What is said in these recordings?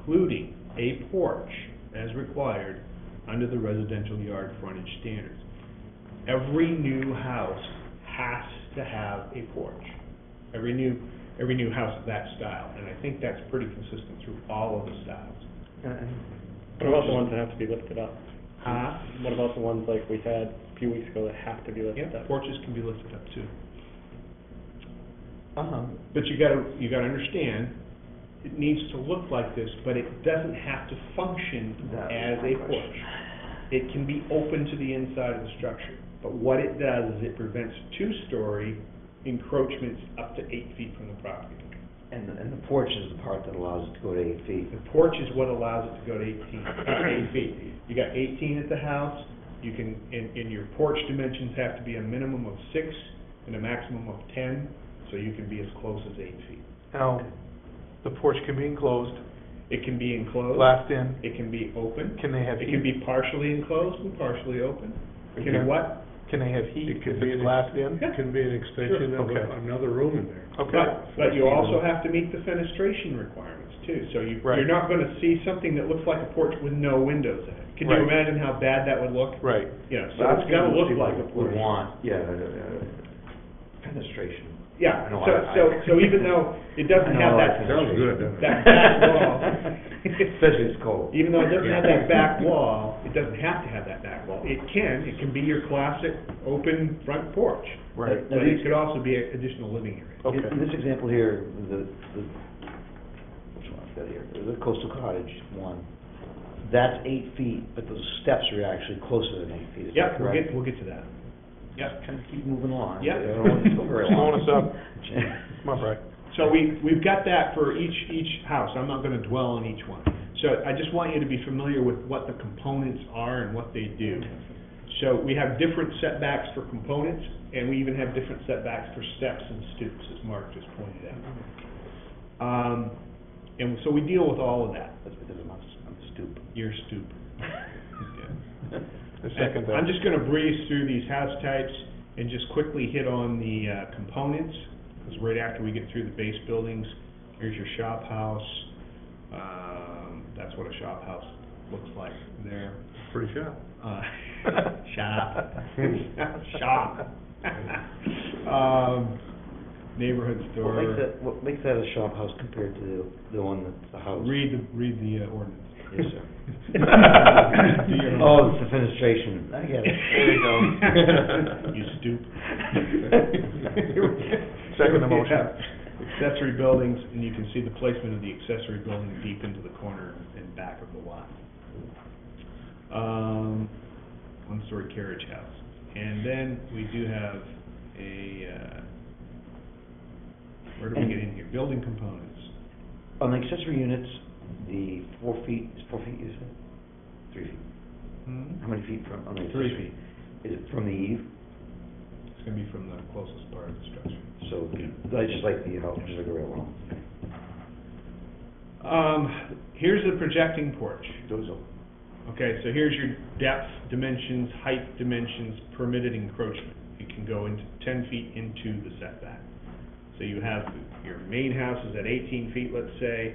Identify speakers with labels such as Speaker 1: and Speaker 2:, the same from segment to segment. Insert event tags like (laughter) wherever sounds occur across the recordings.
Speaker 1: including a porch as required under the residential yard frontage standards. Every new house has to have a porch. Every new, every new house of that style, and I think that's pretty consistent through all of the styles.
Speaker 2: What about the ones that have to be lifted up?
Speaker 1: Huh?
Speaker 2: What about the ones like we had a few weeks ago that have to be
Speaker 1: Yeah,
Speaker 2: lifted up?
Speaker 1: porches can be lifted up too.
Speaker 3: Uh-huh.
Speaker 1: But you gotta, you gotta understand, it needs to look like this, but it doesn't have to function
Speaker 3: That
Speaker 1: as
Speaker 3: was my
Speaker 1: a
Speaker 3: question.
Speaker 1: porch. It can be open to the inside of the structure, but what it does is it prevents two-story encroachments up to eight feet from the property.
Speaker 3: And, and the porch is the part that allows it to go to eight feet.
Speaker 1: The porch is what allows it to go to eighteen, eight feet. You got eighteen at the house, you can, and, and your porch dimensions have to be a minimum of six and a maximum of ten, so you can be as close as eight feet.
Speaker 4: Now, the porch can be enclosed,
Speaker 1: It can be enclosed.
Speaker 4: glassed in,
Speaker 1: It can be open.
Speaker 4: can they have
Speaker 1: It can
Speaker 4: heat?
Speaker 1: be partially enclosed and partially open. It can
Speaker 4: Okay.
Speaker 1: be what?
Speaker 4: Can they have heat
Speaker 5: It
Speaker 4: if
Speaker 5: could be
Speaker 4: it's
Speaker 5: an-
Speaker 4: glassed in?
Speaker 5: It can be an extension of
Speaker 4: Sure, okay.
Speaker 5: a- another room in there.
Speaker 4: Okay,
Speaker 1: But, but you also have to meet the fenestration requirements too. So you,
Speaker 4: Right.
Speaker 1: you're not gonna see something that looks like a porch with no windows in it. Can you
Speaker 4: Right.
Speaker 1: imagine how bad that would look?
Speaker 4: right,
Speaker 1: You know, so it's gotta look like a
Speaker 3: We
Speaker 1: porch.
Speaker 3: want, yeah, uh, fenestration.
Speaker 1: Yeah,
Speaker 3: I know,
Speaker 1: so,
Speaker 3: I-
Speaker 1: so,
Speaker 3: I-
Speaker 1: so even though it doesn't
Speaker 3: (laughs) I
Speaker 1: have
Speaker 3: know I
Speaker 1: that,
Speaker 3: like
Speaker 5: Sounds good. doesn't it?
Speaker 1: that
Speaker 3: (laughs)
Speaker 1: back wall.
Speaker 3: Especially if it's cold.
Speaker 1: Even though it doesn't have that back wall, it doesn't have to have that back wall. It can, it can be your classic open front porch.
Speaker 4: right,
Speaker 3: Now,
Speaker 1: But
Speaker 3: these-
Speaker 1: it could also be an additional living area.
Speaker 3: In
Speaker 4: okay.
Speaker 3: in this example here, the, the, which one I've got here, the coastal cottage one, that's eight feet, but those steps are actually closer than eight feet, is
Speaker 1: Yep,
Speaker 3: that
Speaker 1: we'll
Speaker 3: correct?
Speaker 1: get, we'll get to that. Yep.
Speaker 3: Kind of keep moving along.
Speaker 1: Yeah.
Speaker 3: I don't want to go very long.
Speaker 4: Slowing us
Speaker 3: (laughs)
Speaker 4: up, come on,
Speaker 5: (laughs)
Speaker 4: Brian.
Speaker 1: So we, we've got that for each, each house, I'm not gonna dwell on each one. So I just want you to be familiar with what the components are and what they do. So we have different setbacks for components, and we even have different setbacks for steps and stoops, as Mark just pointed out. Um, and so we deal with all of that,
Speaker 3: That's because I'm, I'm stupid.
Speaker 1: your stoop.
Speaker 4: I second
Speaker 1: I'm
Speaker 4: that.
Speaker 1: just gonna breeze through these house types and just quickly hit on the, uh, components, because right after we get through the base buildings, here's your shop house. Um, that's what a shop house looks like there.
Speaker 5: Pretty sharp.
Speaker 1: Uh, (laughs) shop, shop. Um, neighborhood
Speaker 3: What makes
Speaker 1: store.
Speaker 3: that, what makes that a shop house compared to the, the one that's a house?
Speaker 1: Read the, read the uh, ordinance.
Speaker 3: Yes, sir.
Speaker 1: (laughs) Do your
Speaker 3: (laughs)
Speaker 1: homework.
Speaker 3: Oh, it's the fenestration, I get it. There you (laughs) go.
Speaker 1: You stoop.
Speaker 4: Second the motion.
Speaker 1: Accessory buildings, and you can see the placement of the accessory building deep into the corner and back of the lot. Um, one-story carriage house. And then we do have a, uh, where do we get in here? Building components.
Speaker 3: On the accessory units, the four feet, is four feet, is it? Three feet.
Speaker 1: Hmm?
Speaker 3: How many feet from, on the
Speaker 1: Three
Speaker 3: accessory? Is it from the eave?
Speaker 1: It's gonna be from the closest part of the structure.
Speaker 3: So, I just like the, you know, just like a real one.
Speaker 1: Um, here's the projecting porch.
Speaker 3: Those are.
Speaker 1: Okay, so here's your depth, dimensions, height, dimensions, permitted encroachment. You can go into ten feet into the setback. So you have, your main house is at eighteen feet, let's say,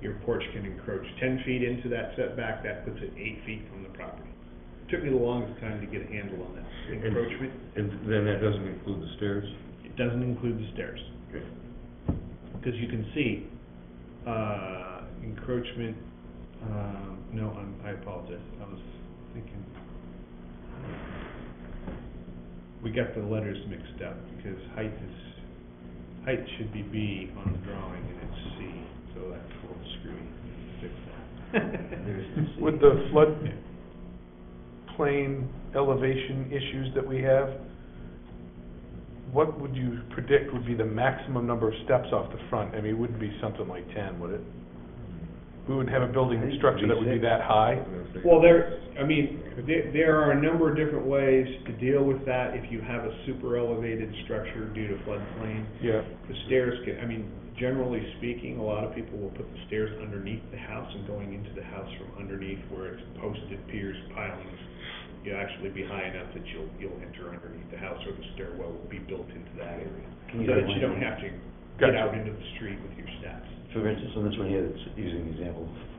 Speaker 1: your porch can encroach ten feet into that setback, that puts it eight feet from the property. Took me the longest time to get a handle on that encroachment.
Speaker 5: And then that doesn't include the stairs?
Speaker 1: It doesn't include the stairs.
Speaker 5: Okay.
Speaker 1: Because you can see, uh, encroachment, um, no, I'm, I apologize, I was thinking. We got the letters mixed up, because height is, height should be B on the drawing, and it's C, so that's a little screwy, fix that.
Speaker 4: With the
Speaker 3: (laughs)
Speaker 4: flood plain elevation issues that we have, what would you predict would be the maximum number of steps off the front? I mean, it wouldn't be something like ten, would it? We wouldn't have a building
Speaker 3: I think it
Speaker 4: structure
Speaker 3: would be
Speaker 4: that would be
Speaker 3: six.
Speaker 4: that high?
Speaker 1: Well, there, I mean, there, there are a number of different ways to deal with that if you have a super elevated structure due to floodplain.
Speaker 4: Yeah,
Speaker 1: The stairs can, I mean, generally speaking, a lot of people will put the stairs underneath the house and going into the house from underneath where it's posted piers, pilings. You'll actually be high enough that you'll, you'll enter underneath the house or the stairwell will be built into that area. So
Speaker 3: Can you
Speaker 1: that
Speaker 3: go
Speaker 1: you don't
Speaker 3: in?
Speaker 1: have to get
Speaker 4: Gotcha.
Speaker 1: out into the street with your steps.
Speaker 3: For instance, on this one here, that's using the example of